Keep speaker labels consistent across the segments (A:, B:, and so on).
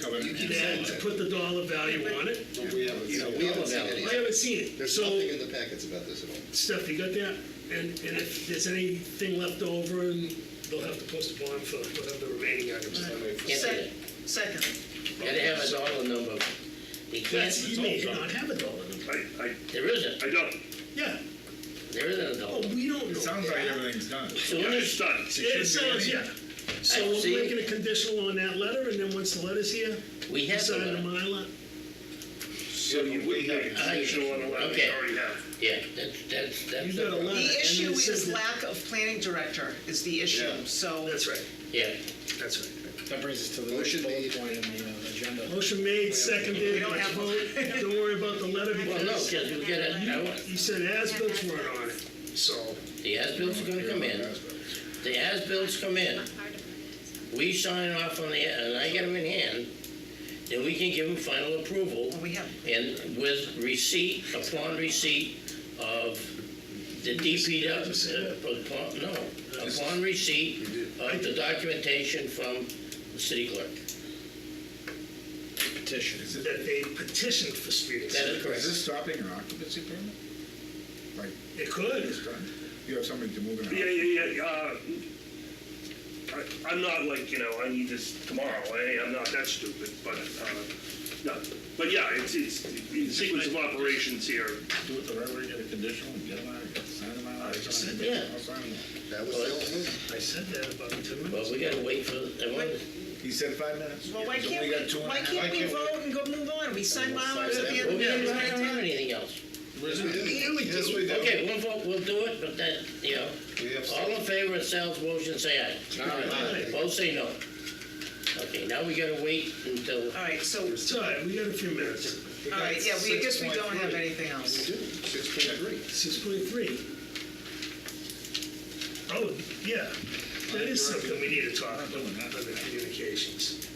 A: cover.
B: You can add, put the dollar value on it.
C: But we haven't
A: You know,
C: seen
A: we
C: it.
A: haven't seen it
B: I
A: yet.
B: haven't seen it.
C: There's nothing
B: So,
C: in the packets about this at all.
B: Steph, you got that? And, and if there's anything left over, and they'll have to post a bond for whatever the remaining items are.
D: Second,
E: Second,
D: gotta have a dollar number. You can't,
B: That's, you may not have a dollar number.
F: I, I,
D: there isn't,
F: I don't.
B: Yeah,
D: there isn't a
B: oh,
D: dollar.
B: we don't know.
A: It sounds like
B: that.
A: everything's done.
D: Soon
F: Yeah,
D: as,
F: it's done.
B: It sounds, yeah. So
D: I see.
B: we're making a conditional on that letter, and then once the letter's here,
D: we
B: you
D: have the
B: sign the
D: letter.
B: Mylar.
F: So you would have a conditional on the letter we
D: Okay.
F: already have.
D: Yeah, that's, that's, that's.
B: You got a
D: problem.
B: letter. and
E: the
B: then
E: issue
B: it says
E: is
B: that-
E: lack of planning director is the issue,
C: Yeah.
E: so.
B: That's right,
D: Yeah,
B: that's right.
G: That brings us to the
C: Motion
G: next bullet
C: made.
G: point in the uh, agenda.
B: Motion made, seconded,
E: We don't
B: let's
E: have
B: vote. Don't worry about the letter
D: well, no,
B: because
D: because we get a,
B: you said as-bills weren't on it, so.
D: the as-bills are gonna come in. The as-bills come in,
H: Hard to find it.
D: we sign off on the, and I get them in hand, then we can give them final approval.
E: Well, we have,
D: And with receipt, upon receipt of the DPW, uh, upon, no, upon receipt of the documentation from the city clerk.
G: Petition.
B: that they petitioned for street
D: That
B: acceptance.
D: is
A: Is this
D: correct.
A: stopping an occupancy permit? Like,
B: It could.
A: it's done? You have somebody to move in. a
F: Yeah,
A: house.
F: yeah, yeah, uh, I, I'm not like, you know, I need this tomorrow, eh, I'm not that stupid, but, uh, no. But yeah, it's, it's, the sequence of operations here,
A: Do it the right way, get a conditional and get them out, get- sign them out.
B: I just said
D: that.
A: I'll sign them.
C: That was the only one.
B: I said that about two
D: Well,
B: minutes.
D: we gotta wait for, I want-
A: He said five minutes.
E: well, why
A: He's
E: can't
A: only got two
E: we,
A: and a
E: why
A: half.
E: can't we
C: can't we-
E: vote and go move on? We signed bylaws at the end
D: well,
E: of
D: we
E: the
D: don't
E: meeting.
D: have anything else.
C: Yes, we do.
B: Yeah, we do.
C: Yes, we do.
D: Okay, we'll vote, we'll do it, but that, you know,
C: We have
D: all in favor of Sal's motion, say aye.
B: Aye.
D: Both say no. Okay, now we gotta wait until,
E: All right, so,
B: It's all right, we got a few minutes.
E: all right, yeah, we, I guess we don't have
C: 6.3.
E: anything else.
C: We do, six point three.
B: Six point three. Oh, yeah, that is something we need to talk about, under communications,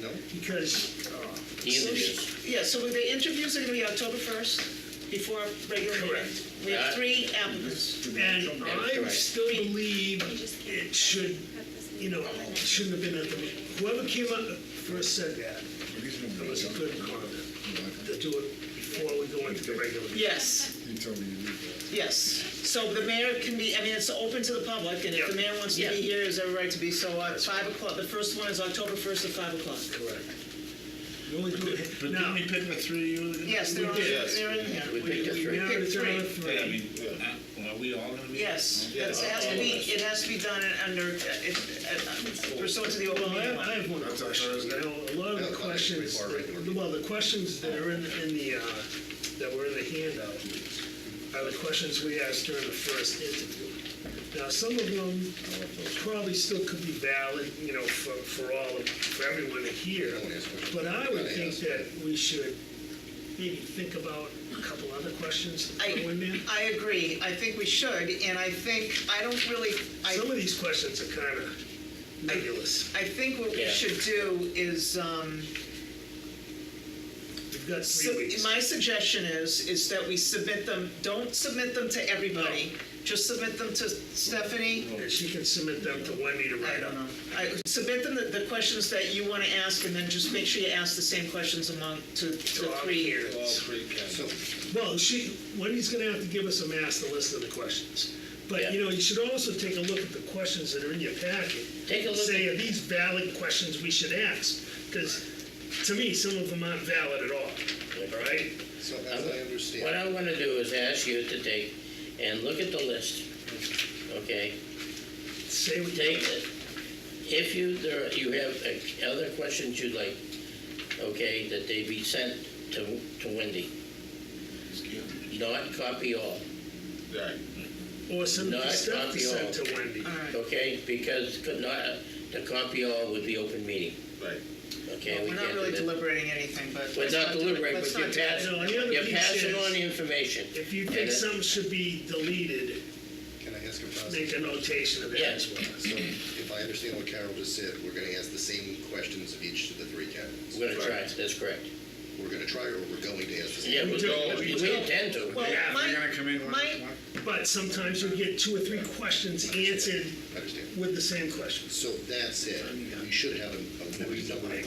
C: No?
B: because, uh,
D: the interviews.
E: Yeah, so the interviews are gonna be October first, before regular meeting.
B: Correct.
E: We have
D: Uh,
E: three applicants.
B: and I
D: correct.
B: still believe
H: You just can't
B: it should,
H: cut this in.
B: you know, it shouldn't have been at the, whoever came up first said that, that was a good comment, to do it before we go into the regular. meeting.
E: Yes,
A: You told me you knew that.
E: yes. So the mayor can be, I mean, it's open to the public, and if the
B: Yeah.
E: mayor wants to be
D: Yeah.
E: here, is every right to be, so at five o'clock, the first one is October first at five o'clock.
B: Correct. We only do it,
I: But didn't
B: now,
I: we pick the three you were gonna?
E: Yes, they're on,
C: Yes.
E: they're in here.
D: We picked the three.
B: now
E: pick
B: it's on
E: three.
I: Yeah, I
B: three.
I: mean, uh, are we all gonna be?
E: Yes,
C: Yeah.
E: that's, it has to be, it has to be done in- under, uh, it- uh, pursuant to the open
B: Well,
E: meeting
B: I-
E: law.
B: I have one
C: That's
B: question.
C: on Thursday.
B: Now, a lot of
C: No,
B: the
C: it's on
B: questions,
C: before regular
B: that-
C: meeting.
B: well, the questions that are in, in the, uh, that were in the handout are the questions we asked during the first interview. Now, some of them probably still could be valid, you know, for, for all, of- for everyone to hear.
C: one asked questions.
B: But I would
C: Nobody
B: think
C: asked.
B: that we should maybe think about a couple other questions to throw in there.
E: I, I agree, I think we should, and I think, I don't really, I,
B: Some of these questions are kind of nebulous.
E: I think what we
D: Yeah.
E: should do is, um,
B: We've got
E: Sub-
B: three weeks.
E: My suggestion is, is that we submit them, don't submit them to everybody, just submit them to Stephanie.
B: And she can submit them to Wendy to
E: I
B: write up.
E: don't know. I, submit them the, the questions that you wanna ask, and then just make sure you ask the same questions among, to, to
B: all
E: three here.
C: All three counts. So,
B: Well, she, Wendy's gonna have to give us a master list of the questions. But, you
D: Yeah.
B: know, you should also take a look at the questions that are in your packet.
D: Take a look
B: Say,
D: at-
B: are these valid questions we should ask? Because to me, some of them aren't valid at all, all right?
C: so as I understand.
D: What I'm gonna do is ask you to take and look at the list, okay?
B: Say what
D: Take it, if you, there, you have uh, other questions you'd like, okay, that they be sent to, to Wendy. Not copy all,
A: Right.
B: Or some
D: No, that's
B: stuff
D: not
B: to
D: the
B: send
D: all. Uh,
B: to Wendy.
E: Alright,
D: okay? Because could not, the copy all would be open meeting,
C: Right.
D: okay? We
E: we're not
D: can't do
E: really
D: that.
E: deliberating anything, but.
D: We're
E: let's
D: not
E: do it.
D: deliberating,
E: Let's
D: but you're
E: not do it.
D: passing,
B: No, the other
D: you're
B: piece
D: passing
B: is-
D: on the information.
B: If you
D: And
B: think
D: it-
B: some should be deleted,
C: Can I ask a
B: make
C: question?
B: a notation of that as well.
C: So if I understand what Carol just said, we're gonna ask the same questions of each of the three candidates.
D: We're gonna try, that's correct.
C: We're gonna try or we're going to ask the same.
D: Yeah, we,
B: don't- we
D: we
B: don't.
D: intend to.
E: Well,
B: Yeah,
E: my-
I: They're gonna come in one,
E: my-
I: one-
B: But sometimes you get two or three questions answered
C: I understand.
B: with the same questions.
C: So that's it. We should have a, a more number of